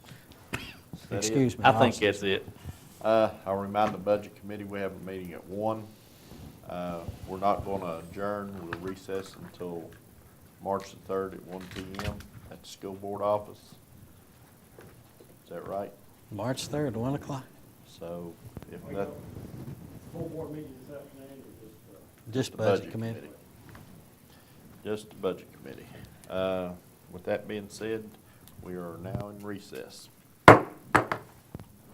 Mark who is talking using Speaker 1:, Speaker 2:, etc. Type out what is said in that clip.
Speaker 1: that it?
Speaker 2: Excuse me.
Speaker 3: I think that's it.
Speaker 1: Uh, I'll remind the budget committee, we have a meeting at one. Uh, we're not gonna adjourn, we'll recess until March the third at one P M at the school board office. Is that right?
Speaker 2: March 3rd, 1 o'clock.
Speaker 1: So if that,
Speaker 4: Full board meeting this afternoon, or just, uh,
Speaker 2: Just
Speaker 1: the
Speaker 2: Budget Committee.
Speaker 1: Just the budget committee. Uh, with that being said, we are now in recess.